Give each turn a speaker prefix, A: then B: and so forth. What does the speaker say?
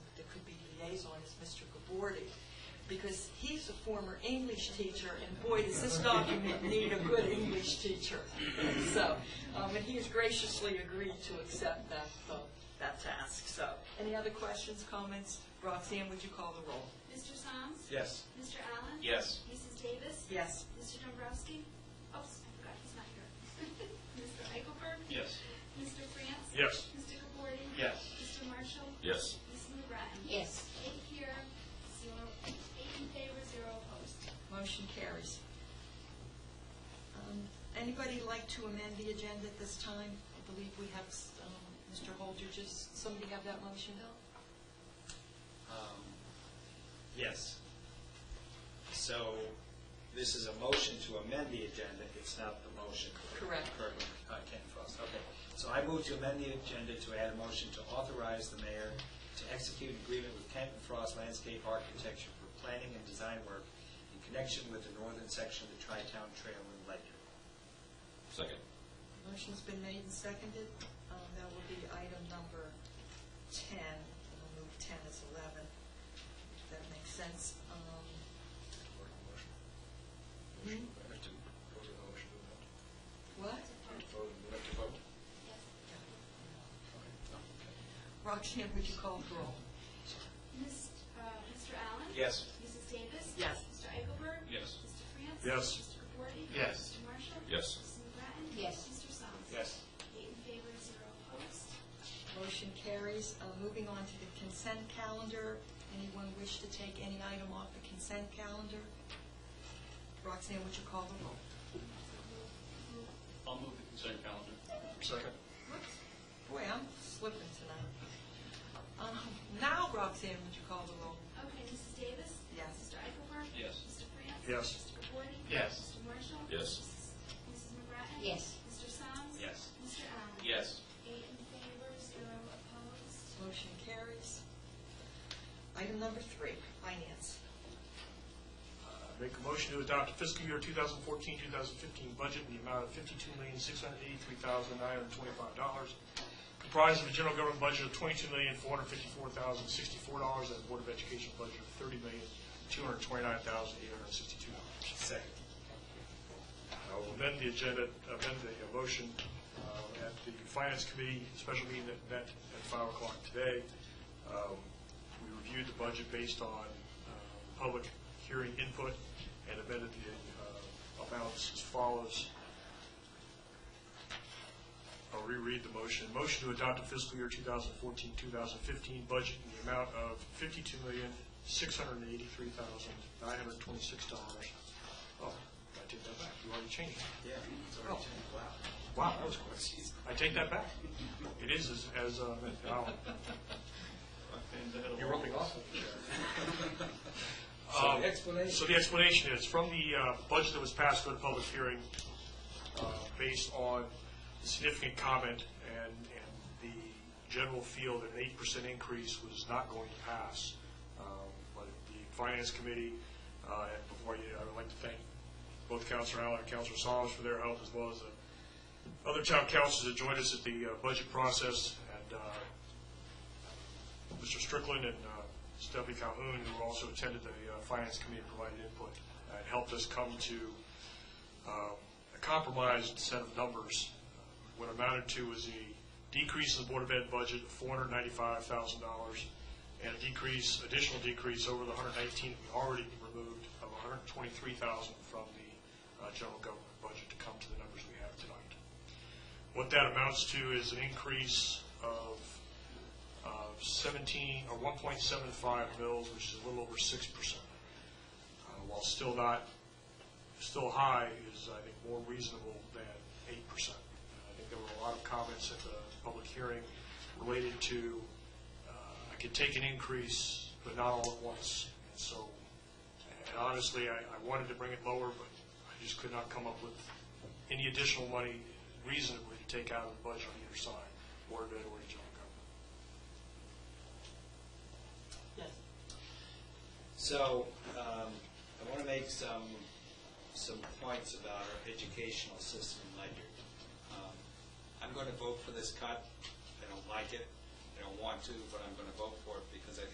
A: liaison is Mr. Gabordi, because he's a former English teacher, and boy, does this document need a good English teacher. So, um, and he has graciously agreed to accept that, uh, that task, so. Any other questions, comments? Roxanne, would you call the roll?
B: Mr. Soms?
C: Yes.
B: Mr. Allen?
C: Yes.
B: Mrs. Davis?
A: Yes.
B: Mr. Dombrowski? Oops, I forgot he's not here. Mr. Eichelberg?
C: Yes.
B: Mr. France?
C: Yes.
B: Mr. Gabori?
C: Yes.
B: Mr. Marshall?
C: Yes.
B: Mrs. McGrattan?
D: Yes.
B: Eight here, zero, eight in favor, zero opposed.
A: Motion carries. Um, Anybody like to amend the agenda at this time? I believe we have um, Mr. Holder, just, somebody have that motion?
C: Um, Yes. So this is a motion to amend the agenda, it's not the motion.
A: Correct.
C: Correct, uh, Ken Frost, okay. So I move to amend the agenda to add a motion to authorize the mayor to execute an agreement with Kent and Frost Landscape Architecture for planning and design work in connection with the northern section of the Tri-Town Trail in Ledyard.
E: Second.
A: Motion's been made and seconded. Um, That will be item number 10. We'll move 10 as 11, if that makes sense. Um, Hmm?
C: to vote on the motion to amend.
A: What?
C: we have to vote?
B: Yes.
A: Roxanne, would you call the roll?
B: Miss- uh, Mr. Allen?
C: Yes.
B: Mrs. Davis?
A: Yes.
B: Mr. Eichelberg?
C: Yes.
B: Mr. France?
C: Yes.
B: Mr. Gabori?
C: Yes.
B: Mr. Marshall?
E: Yes.
B: Mrs. McGrattan?
D: Yes.
B: Mr. Soms?
C: Yes.
B: Eight in favor, zero opposed.
A: Motion carries. Uh, Moving on to the consent calendar. Anyone wish to take any item off the consent calendar? Roxanne, would you call the roll?
F: I'll move the consent calendar.
C: Second.
A: Boy, I'm slipping tonight. Um, Now, Roxanne, would you call the roll?
B: Okay, Mrs. Davis?
A: Yes.
B: Mr. Eichelberg?
F: Yes.
B: Mr. France?
C: Yes.
B: Mr. Gabori?
F: Yes.
B: Mr. Marshall?
E: Yes.
B: Mrs. McGrattan?
D: Yes.
B: Mr. Soms?
C: Yes.
B: Mr. Allen?
F: Yes.
B: Eight in favor, zero opposed.
A: Motion carries. Item number three, finance.
G: Make a motion to adopt fiscal year 2014-2015 budget in the amount of $52,683,925, comprised of a general government budget of $22,454,064 and a Board of Education budget of $30,229,862.
C: Second.
G: I'll amend the agenda, amend the uh, motion uh, at the Finance Committee, special meeting that met at 5 o'clock today. Um, We reviewed the budget based on uh, public hearing input and amended the uh, amounts as follows. I'll reread the motion. Motion to adopt a fiscal year 2014-2015 budget in the amount of $52,683,926. Oh, I take that back. You already changed it.
C: Yeah. It's already changed. Wow.
G: Wow, that was quick. I take that back. It is as, as, uh, now. You're rubbing off on me
C: So
G: Um,
C: the explanation.
G: So the explanation is, from the uh, budget that was passed at the public hearing, uh, based on the significant comment and, and the general feel that an eight percent increase was not going to pass. Um, But the finance committee, uh, and before you, I would like to thank both Counselor Allen and Counselor Solomon for their help, as well as the other town councils that joined us at the uh, budget process, and uh, Mr. Strickland and uh, Stephanie Calhoun, who also attended the uh, Finance Committee, provided input and helped us come to um, a compromised set of numbers. What amounted to was a decrease in the Board of Ed budget of $495,000 and a decrease, additional decrease over the 119 we already removed of $123,000 from the uh, general government budget to come to the numbers we have tonight. What that amounts to is an increase of of 17, or 1.75 mils, which is a little over 6%. Uh, While still not, still high, is, I think, more reasonable than 8%. Uh, I think there were a lot of comments at the public hearing related to, uh, I could take an increase, but not all at once. And so, and honestly, I I wanted to bring it lower, but I just could not come up with any additional money reasonably to take out of the budget on either side, Board of Ed or the general government.
A: Yes.
C: So, um, I want to make some, some points about our educational system in Ledyard. Um, I'm going to vote for this cut. I don't like it. I don't want to, but I'm going to vote for it because I think